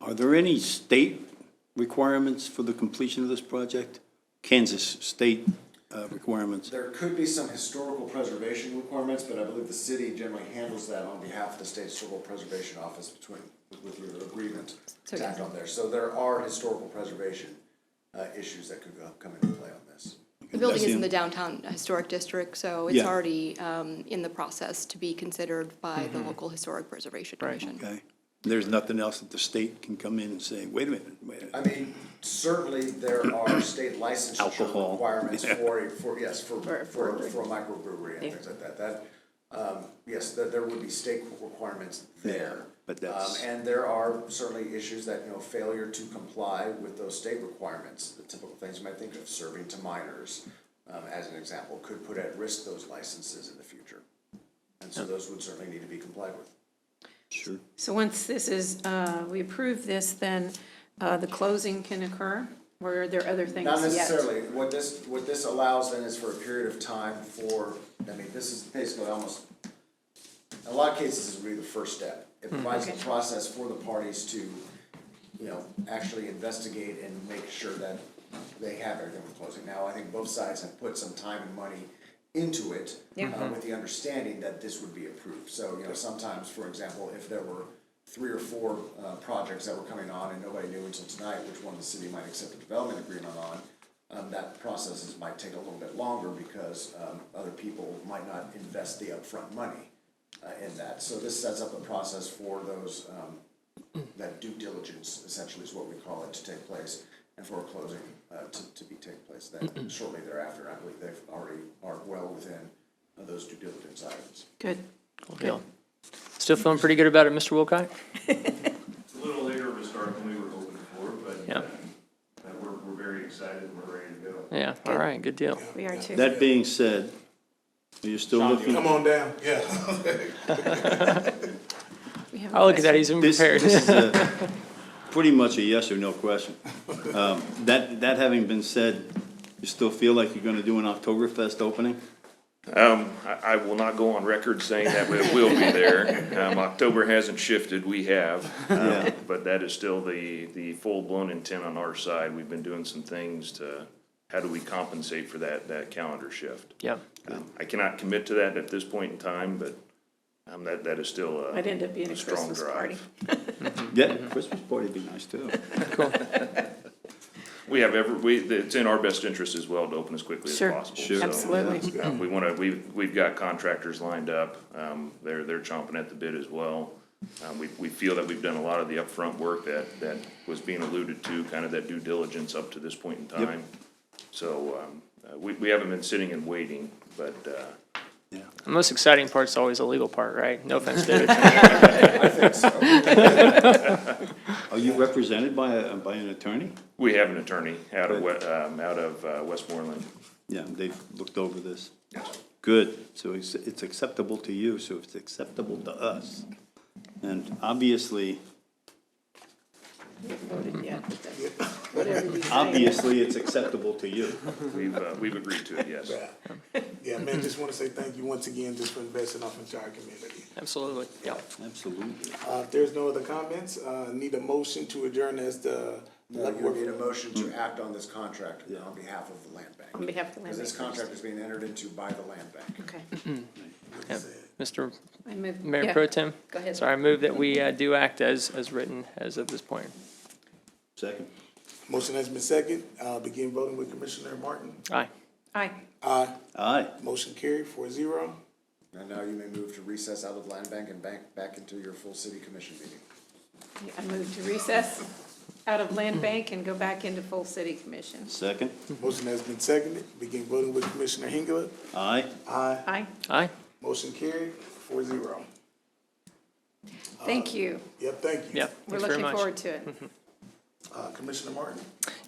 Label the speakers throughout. Speaker 1: Are there any state requirements for the completion of this project? Kansas state uh, requirements?
Speaker 2: There could be some historical preservation requirements, but I believe the city generally handles that on behalf of the state historical preservation office between, with your agreement to act on there. So there are historical preservation, uh, issues that could uh, come into play on this.
Speaker 3: The building
Speaker 1: That's
Speaker 3: is in
Speaker 1: the-
Speaker 3: the downtown historic district, so it's
Speaker 1: Yeah.
Speaker 3: already um, in the process to be considered by
Speaker 1: Mm-hmm.
Speaker 3: the local historic preservation commission.
Speaker 1: Okay? There's nothing else that the state can come in and say, wait a minute, wait a minute.
Speaker 2: I mean, certainly there are state licensure
Speaker 1: Alcohol.
Speaker 2: requirements for, for, yes, for, for,
Speaker 4: For-
Speaker 2: for
Speaker 4: for-
Speaker 2: a microbrewery and things like that, that, um, yes, that there would be state requirements there.
Speaker 1: but that's-
Speaker 2: Um, And there are certainly issues that, you know, failure to comply with those state requirements, the typical things you might think of, serving to minors, um, as an example, could put at risk those licenses in the future. And so those would certainly need to be complied with.
Speaker 1: Sure.
Speaker 4: So once this is, uh, we approve this, then uh, the closing can occur? Or are there other things yet?
Speaker 2: Not necessarily, what this, what this allows then is for a period of time for, I mean, this is basically almost, in a lot of cases, this would be the first step. It provides the
Speaker 4: Okay.
Speaker 2: process for the parties to, you know, actually investigate and make sure that they have everything with closing. Now, I think both sides have put some time and money into it, uh, with the understanding that this would be approved. So, you know, sometimes, for example, if there were three or four, uh, projects that were coming on and nobody knew until tonight which one the city might accept a development agreement on, um, that processes might take a little bit longer because, um, other people might not invest the upfront money uh, in that. So this sets up a process for those, um, that due diligence essentially is what we call it to take place and for a closing, uh, to, to be take place then shortly thereafter. I believe they've already are well within uh, those due diligence items.
Speaker 4: Good.
Speaker 5: deal. Still feeling pretty good about it, Mr. Wilcox?
Speaker 6: It's a little later of a start than we were hoping for, but
Speaker 5: Yeah.
Speaker 6: uh, but we're, we're very excited and we're ready to go.
Speaker 5: Yeah, all right, good deal.
Speaker 4: We are too.
Speaker 1: That being said, are you still looking?
Speaker 7: Come on down, yeah.
Speaker 4: We have a
Speaker 5: Oh, look at
Speaker 4: question.
Speaker 5: that, he's even
Speaker 1: This,
Speaker 5: prepared.
Speaker 1: this is a, pretty much a yes or no question. Um, That, that having been said, you still feel like you're gonna do an Oktoberfest opening?
Speaker 8: I, I will not go on record saying that it will be there. Um, October hasn't shifted, we have.
Speaker 1: Yeah.
Speaker 8: Um, But that is still the, the full-blown intent on our side. We've been doing some things to, how do we compensate for that, that calendar shift?
Speaker 5: Yeah,
Speaker 8: Um, I cannot commit to that at this point in time, but, um, that, that is still a.
Speaker 4: Might end up being a
Speaker 8: strong
Speaker 4: Christmas
Speaker 8: drive.
Speaker 4: party.
Speaker 1: Yeah, Christmas party'd be nice too.
Speaker 8: We have every, we, it's in our best interest as well to open as quickly as
Speaker 4: Sure,
Speaker 8: possible.
Speaker 1: Sure.
Speaker 8: So,
Speaker 4: absolutely.
Speaker 8: um, We wanna, we've, we've got contractors lined up, um, they're, they're chomping at the bit as well. Um, we, we feel that we've done a lot of the upfront work that, that was being alluded to, kind of that due diligence up to this point in time. So, um, uh, we, we haven't been sitting and waiting, but, uh,
Speaker 5: the most exciting part's always the legal part, right? No offense, David.
Speaker 2: I think so.
Speaker 1: Are you represented by, a by an attorney?
Speaker 8: we have an attorney out of,
Speaker 1: Good.
Speaker 8: We- um, out of uh, Westmoreland.
Speaker 1: Yeah, they've looked over this. Good, so it's, it's acceptable to you, so it's acceptable to us. And obviously,
Speaker 4: We haven't voted yet, but that's- Whatever you say.
Speaker 1: obviously, it's acceptable to you.
Speaker 8: We've, uh, we've agreed to it, yes.
Speaker 7: Yeah, man, just wanna say thank you once again, just for investing off into our community.
Speaker 5: Absolutely, yeah.
Speaker 1: Absolutely.
Speaker 7: Uh, if there's no other comments, uh, need a motion to adjourn as the.
Speaker 2: Now, you would need a motion to act on this contract on behalf of the land bank.
Speaker 4: On behalf of the land
Speaker 2: Because this
Speaker 4: bank,
Speaker 2: contract is being entered into by the land bank.
Speaker 4: Okay.
Speaker 5: Mr.
Speaker 4: I move-
Speaker 5: Mayor
Speaker 4: yeah.
Speaker 5: Pro Tem?
Speaker 4: Go ahead.
Speaker 5: Sorry, I move that we uh, do act as, as written as of this point.
Speaker 1: Second?
Speaker 7: Motion has been second, uh, begin voting with Commissioner Martin.
Speaker 5: Aye.
Speaker 4: Aye.
Speaker 7: Aye,
Speaker 1: Aye.
Speaker 7: motion carried four zero.
Speaker 2: And now you may move to recess out of land bank and bank back into your full city commission meeting.
Speaker 4: I move to recess out of land bank and go back into full city commission.
Speaker 1: Second?
Speaker 7: Motion has been seconded, begin voting with Commissioner Hengler.
Speaker 1: Aye.
Speaker 2: Uh,
Speaker 7: Aye,
Speaker 4: Aye.
Speaker 5: Aye.
Speaker 7: motion carried four zero.
Speaker 4: Thank you.
Speaker 7: Yep, thank you.
Speaker 5: Yeah,
Speaker 4: We're
Speaker 5: thanks
Speaker 4: looking
Speaker 5: very much. Mm-hmm.
Speaker 4: forward to it.
Speaker 7: Uh, Commissioner Martin.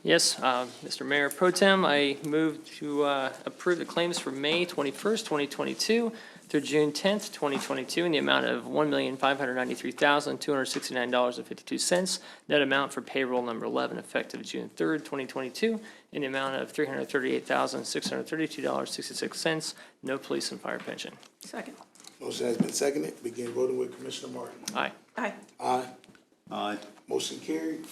Speaker 5: Yes, uh, Mr. Mayor Pro Tem, I move to uh, approve the claims for May 21st, 2022 through June 10th, 2022 in the amount of $1,593,269.52. Net amount for payroll number 11 effective June 3rd, 2022 in the amount of $338,632.66. No police and fire pension.
Speaker 4: Second.
Speaker 7: Motion has been seconded, begin voting with Commissioner Martin.
Speaker 5: Aye.
Speaker 4: Aye.
Speaker 7: Aye,
Speaker 1: Aye.
Speaker 7: Motion carried.